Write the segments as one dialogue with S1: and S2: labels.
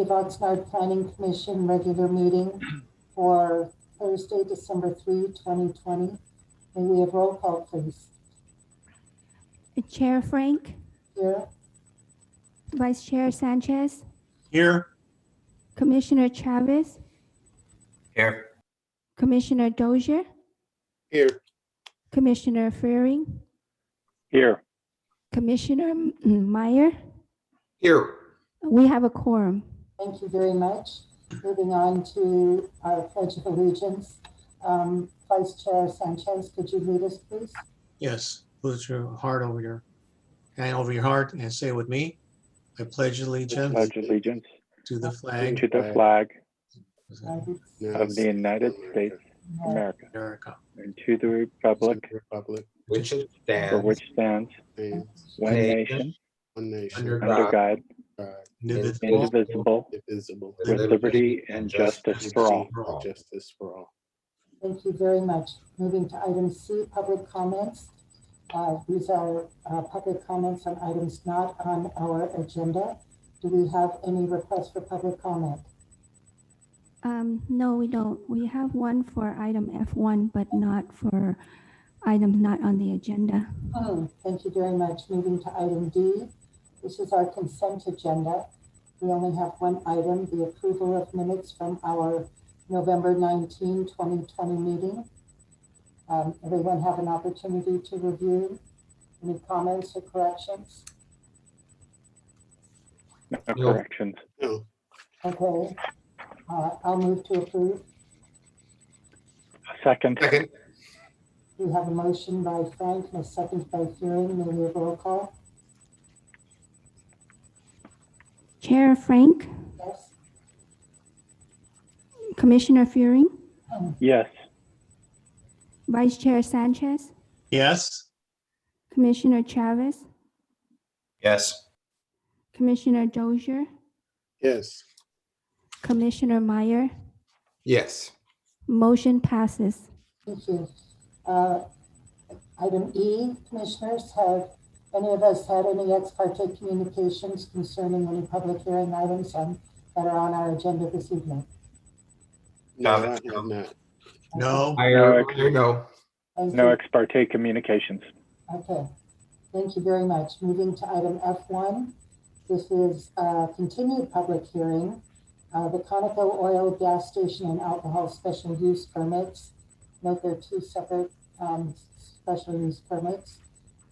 S1: Oxnard Planning Commission regular meeting for Thursday, December 3, 2020. May we have roll call, please?
S2: Chair Frank,
S1: Here,
S2: Vice Chair Sanchez,
S3: Here.
S2: Commissioner Chavez,
S3: Here.
S2: Commissioner Dozier,
S3: Here.
S2: Commissioner Fearing,
S3: Here.
S2: Commissioner mm, Meyer.
S3: Here.
S2: We have a quorum.
S1: thank you very much. Moving on to our pledge of allegiance. Um, Vice Chair Sanchez, could you lead us, please?
S3: Yes, put your heart over your, hand over your heart and say it with me. I pledge
S4: I
S3: allegiance
S4: pledge allegiance
S3: to the
S4: to
S3: flag
S4: the flag
S3: of
S1: Thank you.
S4: of the United States of America
S3: America.
S4: and to the republic
S5: Republic.
S6: Which it
S4: for
S6: stands,
S4: which stands
S5: and
S4: one
S6: Nation,
S4: nation,
S5: One
S3: Under
S5: nation.
S4: under God,
S5: God,
S3: Indivisible.
S4: indivisible,
S5: Indivisible.
S4: with liberty and justice for all.
S5: and Justice for all.
S1: Thank you very much. Moving to item C, public comments. Uh, These are uh, public comments on items not on our agenda. Do we have any requests for public comment?
S2: Um, no, we don't. We have one for item F1, but not for items not on the agenda.
S1: Hmm, Thank you very much. Moving to item D. This is our consent agenda. We only have one item, the approval of minutes from our November 19, 2020 meeting. Um, Everyone have an opportunity to review. Any comments or corrections?
S4: No
S6: No.
S4: corrections.
S5: No,
S1: Okay, uh, I'll move to approve.
S4: Second,
S6: second,
S1: We have a motion by Frank and a second by Fearing. May we have roll call?
S2: Chair Frank,
S1: Yes?
S2: Commissioner Fearing,
S4: yes.
S2: Vice Chair Sanchez,
S3: Yes,
S2: Commissioner Chavez,
S6: yes,
S2: Commissioner Dozier,
S5: yes,
S2: Commissioner Meyer.
S6: yes,
S2: Motion passes.
S1: Thank you. Uh, Item E, Commissioners, have any of us had any ex parte communications concerning any public hearing items on- that are on our agenda this evening?
S5: no, I
S6: Got it.
S5: have not.
S3: no,
S6: I,
S4: No,
S6: I know,
S1: Thank
S4: No
S1: you.
S4: ex parte communications.
S1: Okay, thank you very much. Moving to item F1. This is a continued public hearing. uh, The Conoco Oil Gas Station and Alcohol Special Use Permits. Note there are two separate um, special use permits.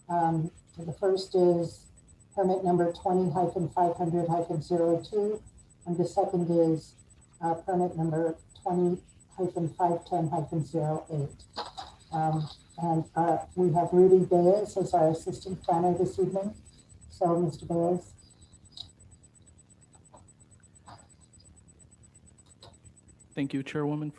S1: Um, The first is permit number 20-500-02. And the second is uh, permit number 20-510-08. Um, and uh, we have Rudy Bayes as our assistant planner this evening. So, Mr. Bayes,
S7: Thank you, Chairwoman,